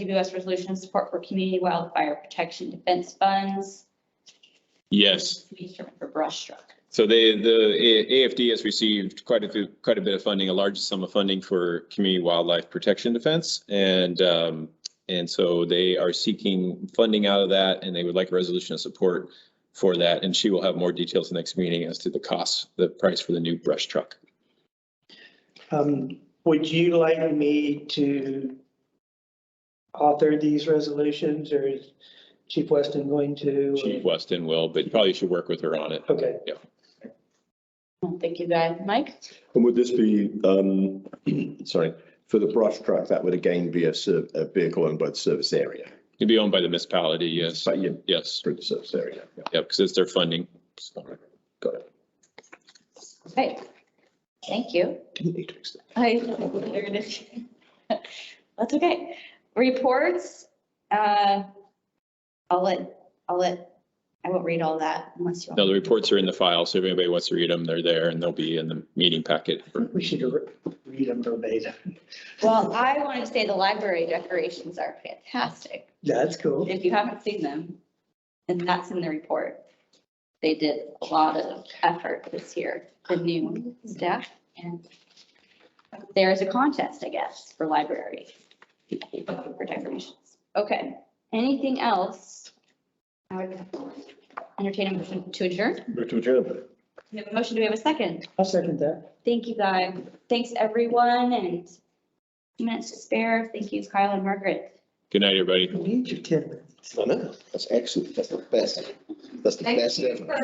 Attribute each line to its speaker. Speaker 1: CWS resolution of support for community wildfire protection defense funds.
Speaker 2: Yes,
Speaker 1: We determined for brush truck.
Speaker 2: so they, the A- AFD has received quite a few, quite a bit of funding, a large sum of funding for community wildlife protection defense. And, um, and so they are seeking funding out of that and they would like a resolution of support for that. And she will have more details the next meeting as to the cost, the price for the new brush truck.
Speaker 3: Um, would you like me to author these resolutions or is Chief Weston going to?
Speaker 2: Chief Weston will, but you probably should work with her on it.
Speaker 3: Okay,
Speaker 1: Thank you, guys. Mike?
Speaker 4: And would this be, um, sorry, for the brush truck, that would again be a ser- a vehicle owned by the service area?
Speaker 2: It'd be owned by the municipality, yes,
Speaker 4: But you,
Speaker 2: yes,
Speaker 4: through the service area, yeah.
Speaker 2: yep, because it's their funding.
Speaker 4: got it.
Speaker 1: Okay. Thank you.
Speaker 4: Didn't need to extend.
Speaker 1: I, there it is. That's okay. Reports, uh, I'll let, I'll let, I won't read all that unless you
Speaker 2: No,
Speaker 1: want.
Speaker 2: the reports are in the file, so if anybody wants to read them, they're there and they'll be in the meeting packet for
Speaker 3: we should re- read them verbatim.
Speaker 1: Well, I wanted to say the library decorations are fantastic.
Speaker 3: That's cool.
Speaker 1: if you haven't seen them, and that's in the report. They did a lot of effort this year, the new staff, and there is a contest, I guess, for library people for decorations. Okay, anything else? I would entertain a motion to adjourn.
Speaker 4: Move to adjourn.
Speaker 1: We have a motion, do we have a second?
Speaker 3: I'll second that.
Speaker 1: Thank you, guys. Thanks, everyone, and two minutes to spare. Thank you, Kyle and Margaret.
Speaker 2: Good night, everybody.
Speaker 3: We Need your ten minutes.
Speaker 4: I know, that's excellent, that's the best, that's the
Speaker 1: Thank
Speaker 4: best
Speaker 1: you.
Speaker 4: ever.